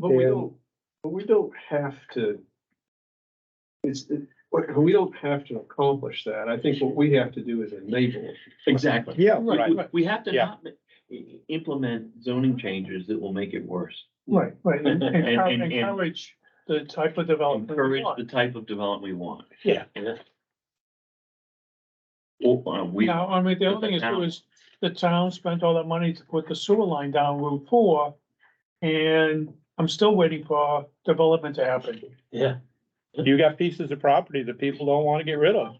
But we And- don't, but we don't have to. It's, it- what- we don't have to accomplish that. I think what we have to do is enable. it. Exactly. Yeah, Right, right, we- we have to Yeah. not ma- i- i- implement zoning changes that will make it worse. Right, right, and And- and- and- encou- encourage the type of Oh, development. we Encourage want. the type of development we want. Yeah. Or, uh, we, Now, I mean, the other thing is, Town. too is the town spent all that money to put the sewer line down Route four. And I'm still waiting for development to happen. yeah, you got pieces of property that people don't wanna get rid of.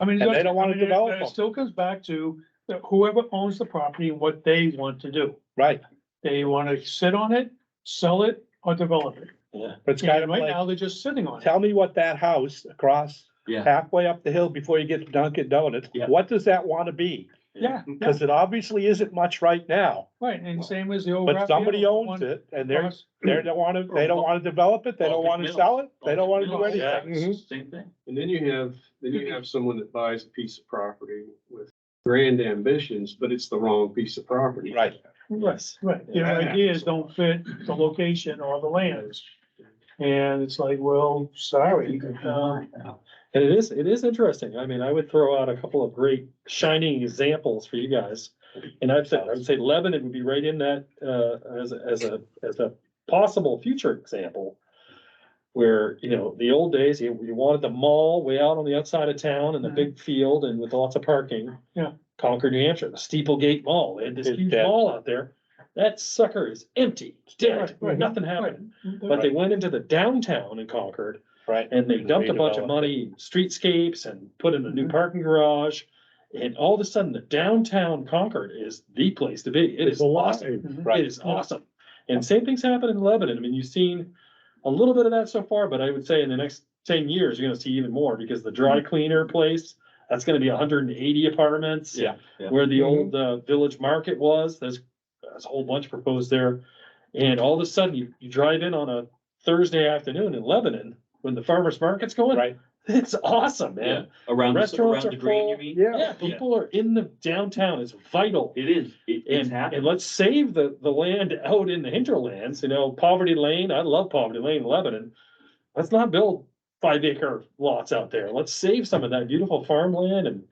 I mean. And that's- they don't wanna I mean, it- develop It them. still comes back to that whoever owns the property, and what they want to do. Right, They wanna sit on it, sell it, or develop it. yeah, but it's kind And of right like, now, they're just sitting on it. tell me what that house across yeah. halfway up the hill before you get to Dunkin' Donuts, Yeah. what does that wanna be? Yeah, yeah, Cause it obviously isn't much right now, right, and same as the old. but somebody Raphael owns one it and they're, across- they're, they wanna, they don't wanna develop it, they don't wanna sell it, they don't wanna do Yeah, anything. Mm-hmm. Same thing. And then you have, then you have someone that buys a piece of property with grand ambitions, but it's the wrong piece of property. Right. Right, right, their Yeah. ideas don't fit the location or the lands. And it's like, well, sorry, um, And it is, it is interesting. I mean, I would throw out a couple of great shining examples for you guys. And I've said, I would say Lebanon would be right in that, uh, as, a- as a, as a possible future example. Where, you know, the old days, you, you wanted the mall way out on the outside of town and the big field and with lots of parking. Mm-hmm. Yeah. Concord, New Hampshire, the Steeple Gate Mall, they had this It's huge dead. mall out there. That sucker is empty, It's dead, Right, right. nothing right. happened. But they went into the downtown in Concord Right. and they dumped a bunch of money, in streetscapes and put in a new parking garage. And all of a sudden, the downtown Concord is the place to be. It is awesome. It Right, is awesome. And same things happen in Lebanon. I mean, you've seen a little bit of that so far, but I would say in the next ten years, you're gonna see even more because the dry cleaner place, that's gonna be hundred and eighty apartments. Yeah, yeah. Where the old uh, village market was, there's, there's a whole bunch proposed there. And all of a sudden, you, you drive in on a Thursday afternoon in Lebanon, when the farmer's market's going, right, it's awesome, man. Around, the- Restaurants around are the green, you full. mean? yeah, Yeah, people are in the downtown, it's vital. It is, it, it's And, and happening. let's save the, the land out in the hinterlands, you know, Poverty Lane, I love Poverty Lane, in Lebanon. Let's not build five acre lots out there. Let's save some of that beautiful farmland and,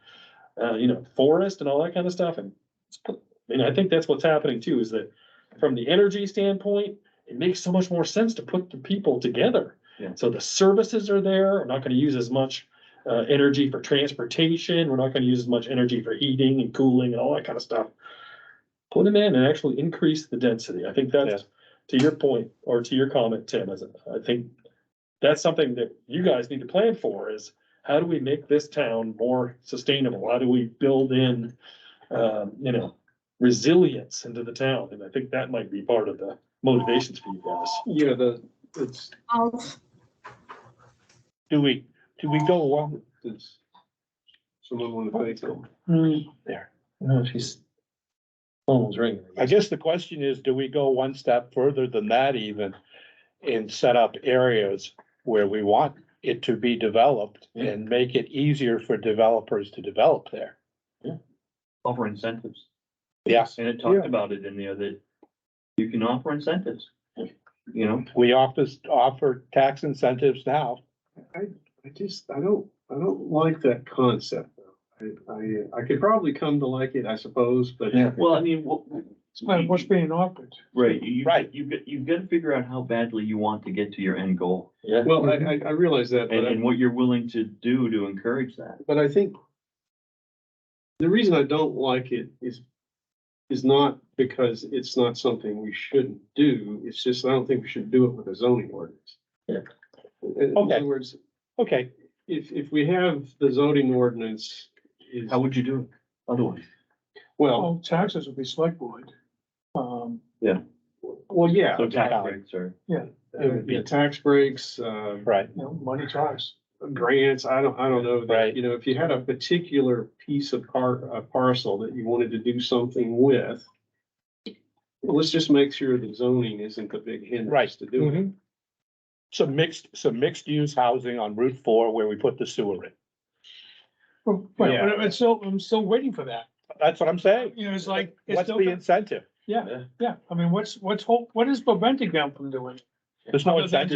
uh, you know, forest and all that kind of stuff and. let's put- And I think that's what's happening too, is that from the energy standpoint, it makes so much more sense to put the people together. Yeah. So the services are there. We're not gonna use as much, uh, energy for transportation. We're not gonna use as much energy for heating and cooling and all that kind of stuff put them in and actually increase the density. I think that's, to your point, or to your comment, Tim, as I think that's something that you guys need to plan for is how do we make this town more sustainable? How do we build in, um, you know, resilience into the town? And I think that might be part of the motivations for you guys. You know, the, it's, do we, do we go along? it's, someone want to take them. Mm, No, she's. Phone was ringing. I guess the question is, do we go one step further than that even? And set up areas where we want it to be developed and make it easier for developers to develop there? Offer incentives. Yes, And it talked Yeah. about it in the other, you can offer incentives, you know? we offer, offer tax incentives now. I just, I don't, I don't like that concept though. I, I, I could probably come to like it, I suppose, but. Yeah. Well, I mean, what? it's like what's being offered. Right, you, Right. you've got, you've got to figure out how badly you want to get to your end goal. Yeah. Well, I, I, I realize that, but And, I, and what you're willing to do to encourage that. but I think the reason I don't like it is, is not because it's not something we shouldn't do. It's just, I don't think we should do it with a zoning ordinance. Yeah. In Okay. other words, Okay, if, if we have the zoning ordinance is, How would you do it otherwise? well, Oh, taxes would be select board. Um, well, yeah. So tax yeah. breaks or, It would be tax breaks, uh, right, you know, money talks. grants, I don't, I don't know. that, Right. You know, if you had a particular piece of par, a parcel that you wanted to do something with. Well, let's just make sure the zoning isn't the big Right. hindrance to do it. Mm-hmm. some mixed, some mixed use housing on Route Four where we put the sewer in. Well, Yeah. But it's still, I'm still waiting for that. That's what I'm saying. You know, it's like, it's What's still, the incentive? yeah, I mean, what's, what's, hol- what is preventing them from doing? it? There's no Other than incentive.